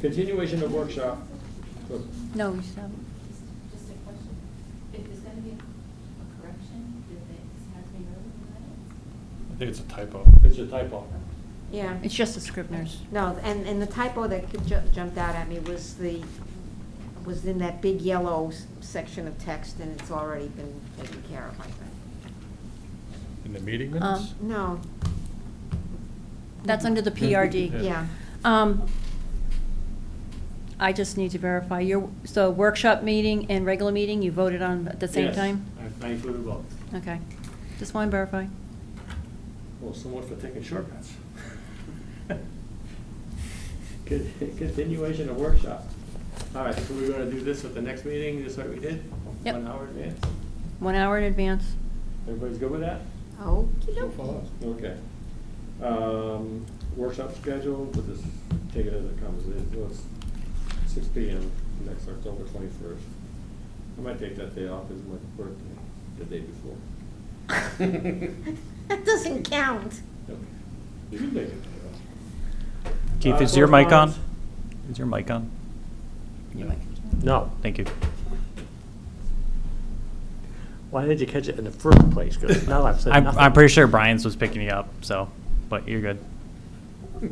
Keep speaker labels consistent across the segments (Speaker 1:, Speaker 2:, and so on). Speaker 1: Continuation of workshop. Look,
Speaker 2: No, you haven't.
Speaker 3: Just a question, if there's gonna be a correction, did they, has been noted in the minutes?
Speaker 4: I think it's a typo.
Speaker 1: It's a typo.
Speaker 5: Yeah.
Speaker 2: It's just the Scribner's.
Speaker 5: No, and, and the typo that ju- jumped out at me was the, was in that big yellow s- section of text, and it's already been taken care of, I think.
Speaker 4: In the meeting minutes?
Speaker 5: Um, No,
Speaker 2: That's under the PRD.
Speaker 5: yeah.
Speaker 2: Um, I just need to verify, your, so workshop meeting and regular meeting, you voted on at the same
Speaker 1: Yes,
Speaker 2: time?
Speaker 1: I I included both.
Speaker 2: Okay, just want to verify.
Speaker 1: Well, somewhat for taking shortcuts. Con- Continuation of workshop. All right, so we're gonna do this at the next meeting, just like we did?
Speaker 2: Yep.
Speaker 1: One hour in advance.
Speaker 2: One hour in advance.
Speaker 1: Everybody's good with that?
Speaker 5: Oh,
Speaker 1: Okay. Um, Workshop schedule, we'll just take it as it comes. It was six P M, next October twenty-first. I might take that day off, it's my birthday, the day before.
Speaker 5: That doesn't count.
Speaker 1: Yep. You can take it.
Speaker 6: Keith,
Speaker 1: Uh,
Speaker 6: is your mic on?
Speaker 1: correspondence?
Speaker 6: Is your mic on?
Speaker 2: Your mic.
Speaker 7: No.
Speaker 6: Thank you.
Speaker 7: Why did you catch it in the first place? 'Cause now I've said
Speaker 6: I'm,
Speaker 7: nothing.
Speaker 6: I'm pretty sure Brian's was picking you up, so, but you're good.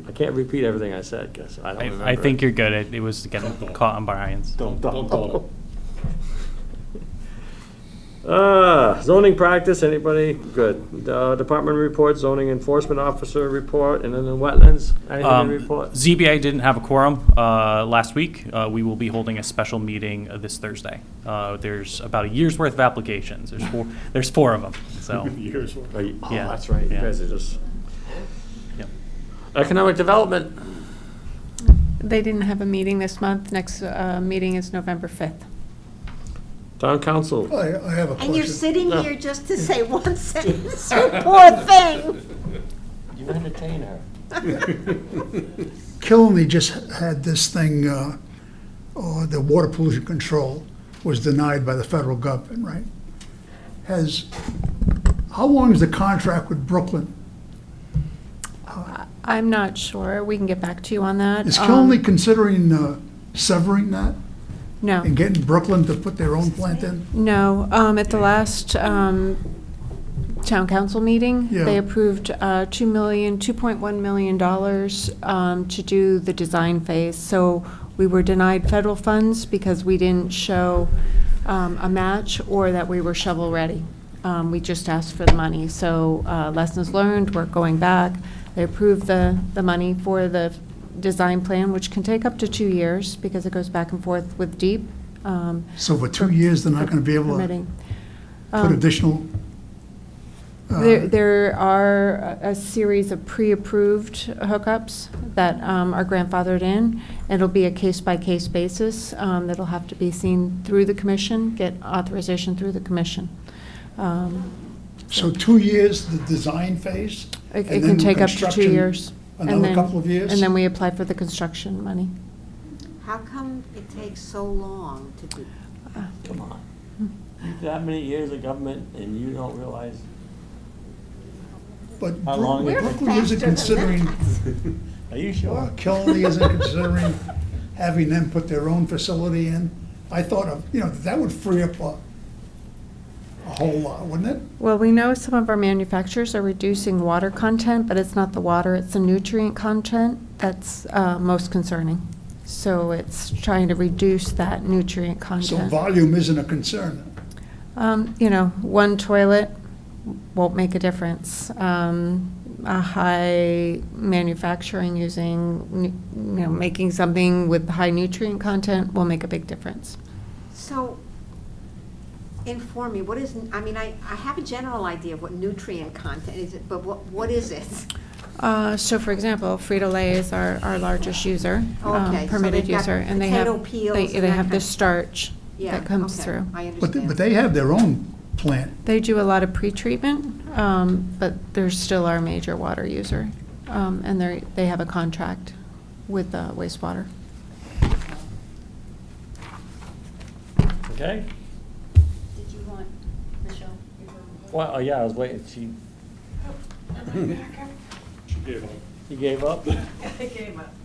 Speaker 7: I can't repeat everything I said because I don't remember.
Speaker 6: I, I think you're good. It, it was getting caught on Brian's.
Speaker 7: Don't,
Speaker 1: Don't call
Speaker 7: Uh, zoning practice, anybody? Good. Uh, Department report, zoning enforcement officer report, and then the wetlands, anything
Speaker 6: Um,
Speaker 7: to report?
Speaker 6: ZBA didn't have a quorum uh, last week. Uh, We will be holding a special meeting uh, this Thursday. Uh, There's about a year's worth of applications. There's four, there's four of them, so.
Speaker 4: Years.
Speaker 7: Oh, you- oh,
Speaker 6: yeah,
Speaker 7: that's right, you
Speaker 6: yeah.
Speaker 7: guys are just,
Speaker 6: yep.
Speaker 7: economic development,
Speaker 8: They didn't have a meeting this month. Next uh, meeting is November 5th.
Speaker 7: town council.
Speaker 9: I, I have a question.
Speaker 5: And you're sitting here just to say one sentence, you poor thing.
Speaker 7: You entertain her.
Speaker 9: Killenly just had this thing, uh, oh, the water pollution control was denied by the federal government, right? Has, how long is the contract with Brooklyn?
Speaker 8: I'm not sure. We can get back to you on that.
Speaker 9: Is
Speaker 8: Um,
Speaker 9: Killenly considering uh, severing that
Speaker 8: No,
Speaker 9: and getting Brooklyn to put their own plant in?
Speaker 8: no. Um, At the last um, town council meeting,
Speaker 9: Yeah.
Speaker 8: they approved uh, $2 million, $2.1 million dollars, um, to do the design phase. So we were denied federal funds because we didn't show um, a match or that we were shovel-ready. Um, We just asked for the money. So uh, lessons learned, we're going back. They approved the, the money for the design plan, which can take up to two years because it goes back and forth with DEEP. um,
Speaker 9: So for two years, they're not gonna be able to
Speaker 8: permitting.
Speaker 9: put
Speaker 8: Um,
Speaker 9: additional? uh,
Speaker 8: There, there are a- a series of pre-approved hookups that um, are grandfathered in. It'll be a case-by-case basis um, that'll have to be seen through the commission, get authorization through the commission. Um,
Speaker 9: So two years, the design phase?
Speaker 8: It
Speaker 9: and
Speaker 8: it can
Speaker 9: then
Speaker 8: take up to two
Speaker 9: construction
Speaker 8: years. and
Speaker 9: Another
Speaker 8: then-
Speaker 9: couple of years?
Speaker 8: And then we apply for the construction money.
Speaker 5: How come it takes so long to do?
Speaker 7: Come on. That many years of government and you don't realize?
Speaker 9: But
Speaker 7: How long
Speaker 9: Brook-
Speaker 7: is it?
Speaker 9: Brooklyn isn't
Speaker 5: Faster than
Speaker 9: considering
Speaker 7: Are you
Speaker 9: Well, Killenly Uh, isn't considering having them put their own facility in. I thought of, you know, that would free up a, a whole lot, wouldn't it?
Speaker 8: Well, we know some of our manufacturers are reducing water content, but it's not the water, it's the nutrient content that's uh, most concerning. So it's trying to reduce that nutrient
Speaker 9: So
Speaker 8: content.
Speaker 9: volume isn't a concern.
Speaker 8: Um, You know, one toilet won't make a difference. Um, A high manufacturing using, nu- you know, making something with high nutrient content will make a big difference.
Speaker 5: So, inform me, what is, I mean, I, I have a general idea of what nutrient content is, but what, what is it?
Speaker 8: Uh, So for example, Frito-Lay is our, our largest user, um,
Speaker 5: Okay, so
Speaker 8: permitted
Speaker 5: they've got
Speaker 8: user, and they have,
Speaker 5: potato peels
Speaker 8: they,
Speaker 5: and
Speaker 8: they
Speaker 5: that
Speaker 8: have the
Speaker 5: kind-
Speaker 8: starch
Speaker 5: Yeah,
Speaker 8: that comes
Speaker 5: okay,
Speaker 8: through.
Speaker 5: I
Speaker 9: But, they-
Speaker 5: understand.
Speaker 9: but they have their own plant.
Speaker 8: They do a lot of pretreatment, um, but they're still our major water user, um, and they they have a contract with uh, wastewater.
Speaker 7: Okay.
Speaker 2: Did you want Michelle?
Speaker 7: Well, oh, yeah, I was waiting, she,
Speaker 1: She gave up.
Speaker 7: you gave up?
Speaker 3: I gave up.